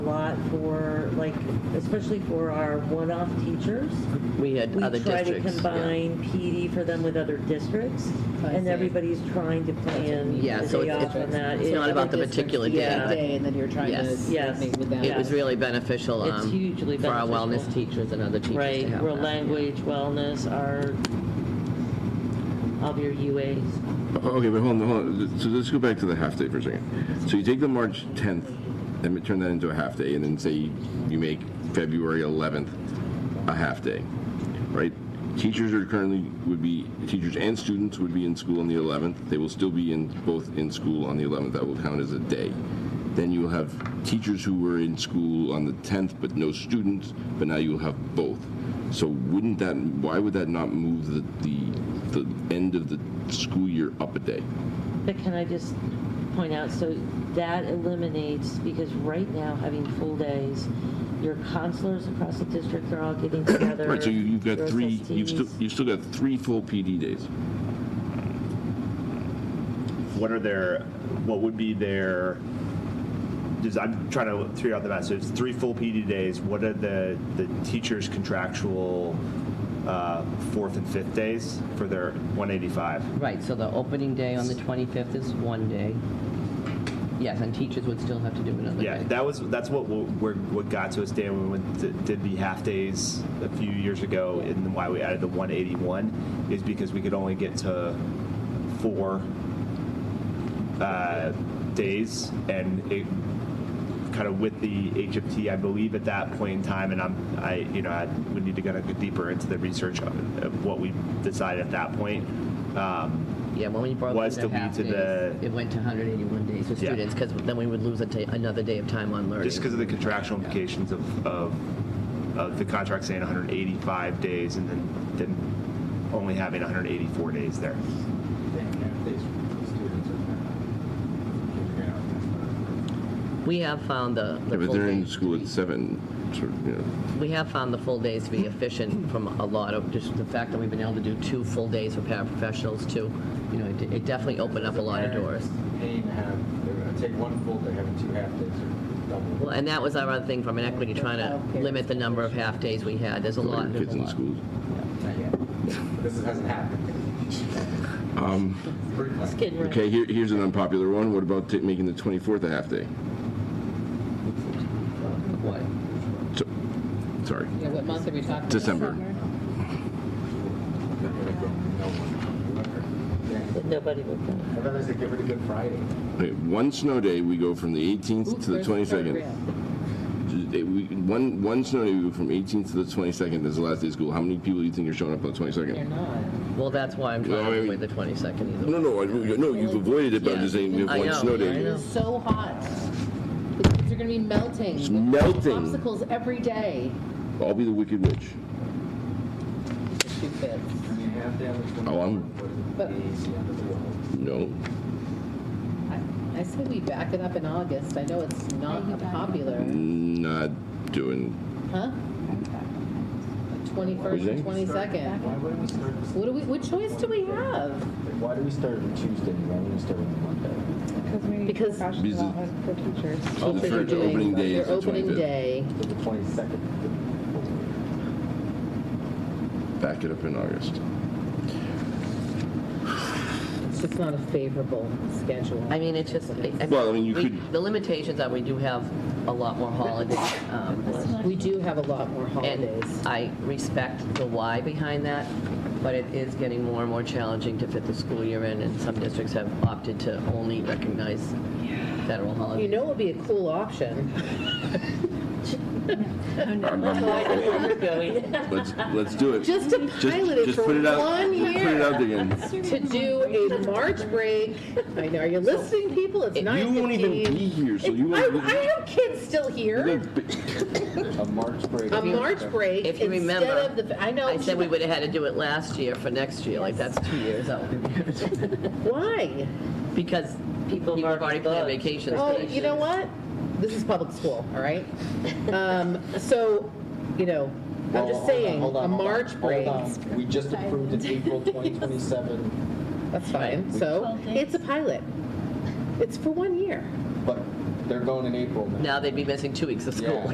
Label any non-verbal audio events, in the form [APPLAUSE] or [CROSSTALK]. for, like, especially for our one-off teachers. We had We other try to districts. yeah. combine PD for them with other districts, I and see. everybody's trying to plan Yeah, the so day it's- off it's- and that. it's It- not other about the districts- particular day, yeah. but- Day, and then you're trying to Yes. Yes. coordinate with them. It was really beneficial. It's um, hugely For our beneficial. wellness teachers and other teachers to Right, have real that. language, wellness, our, of your UAs. Oh, Okay, but hold on, hold on. So let's go back to the half day for a second. So you take the March 10th and we turn that into a half day, and then say you make February 11th a half day, right? Teachers are currently would be teachers and students would be in school on the 11th. They will still be in both in school on the 11th. That will count as a day. Then you'll have teachers who were in school on the 10th, but no students. But now you'll have both. So wouldn't that? Why would that not move the the, the end of the school year up a day? But can I just point out, so that eliminates, because right now, having full days, your counselors across the district are all getting together. [COUGHS] Right. So you, you've got your three. You've still SSTs. you've still got three full PD days. what are their what would be their just- I'm trying to figure out the math. So it's three full PD days. What are the the teachers' contractual uh, fourth and fifth days for their 185? Right, so the opening day on the 25th is one day. Yes, and teachers would still have to do another Yeah, day. that was that's what we we're, what got to us, Dan, when we went to- did the half days a few years ago, and why we added the 181 is because we could only get to four uh, days, and it kind of with the HFT, I believe at that point in time, and I'm I you know I would need to kind of go deeper into the research of, of what we decided at that point. Um, Yeah, when we broke Was into to lead half to days, the- it went to 181 days for Yeah. students, because then we would lose a ta- another day of time on learning. Just because of the contractual implications of, of, of the contract saying 185 days and then, then only having 184 days there. We have found the Yeah, the but full they're in days to school be- at seven. Sort of, you know. We have found the full days to be efficient from a lot of, just the fact that we've been able to do two full days for paraprofessionals too, you know, it it definitely opened up a lot of doors. Pain to have, they're gonna take one full day, having two half days, or double. Well, and that was our other thing from an equity, trying to limit the number of half-days we had, there's a All lot. your kids in there's a lot. schools. Not yet. This hasn't happened. Um. Pretty much. It's getting ready. Okay, here, here's an unpopular one. What about ta- making the 24th a half day? What? So, sorry, Yeah, what month are we talking? December. They're gonna go, no one. That Nobody would come. I'd rather say give it a good Friday. Okay, one snow day, we go from the 18th to the 22nd. second. It- we- One, one snow day, we go from 18th to the 22nd. That's the last day of school. How many people do you think are showing up on the 22nd? They're not. Well, that's why I'm trying No, I to mean- avoid the 22nd either. No, no, I- no, you've avoided it, but I'm just saying we have I one know, snow I day. know. It's so hot. The kids are gonna be melting. It's melting. Popsicles every day. I'll be the wicked witch. The two kids. I mean, half day on the Oh, I'm- 24th, what But- is it, easy under the wall. No. I- I say we back it up in August. I know it's not popular, Not doing, huh? Twenty-first What'd you say? and twenty-second. Why wouldn't we start, What do we, what choice do we have? why do we start on Tuesday, why wouldn't we start on Monday? Because we need Because- professional Because- development for teachers. Oh, Teachers are the first opening doing day is their the opening 25th. day. to the 22nd. back it up in August. It's just not a favorable schedule. I mean, it's just. I- Well, I mean, you we- could- The limitations are, we do have a lot more holidays. um, We do have a lot more And holidays. I respect the why behind that, but it is getting more and more challenging to fit the school year in, and some districts have opted to only recognize federal holidays. You know it would be a cool option. I'm- I'm- [LAUGHS] Let's, let's do it. Just to Just, pilot it just for put it out. one Put it out year. again. To do a March break. I know, are you listening, people? It's nine You won't even be fifteen. here, so you I, won't. I have kids still you're here. gonna be- A March break. A March break If you instead remember, of the, I know. I said we would have had to do it last year for next year, like that's two years out. Why? Because people have have already already planned booked. vacations. for Oh, next you know year. what? This is public school, all [LAUGHS] right? Um, so, you know, I'm just saying, a March break, We just approved it April 2027, that's fine. So it's a pilot. It's for one year. but they're going in April now. Now they'd be missing two weeks of school. Yeah.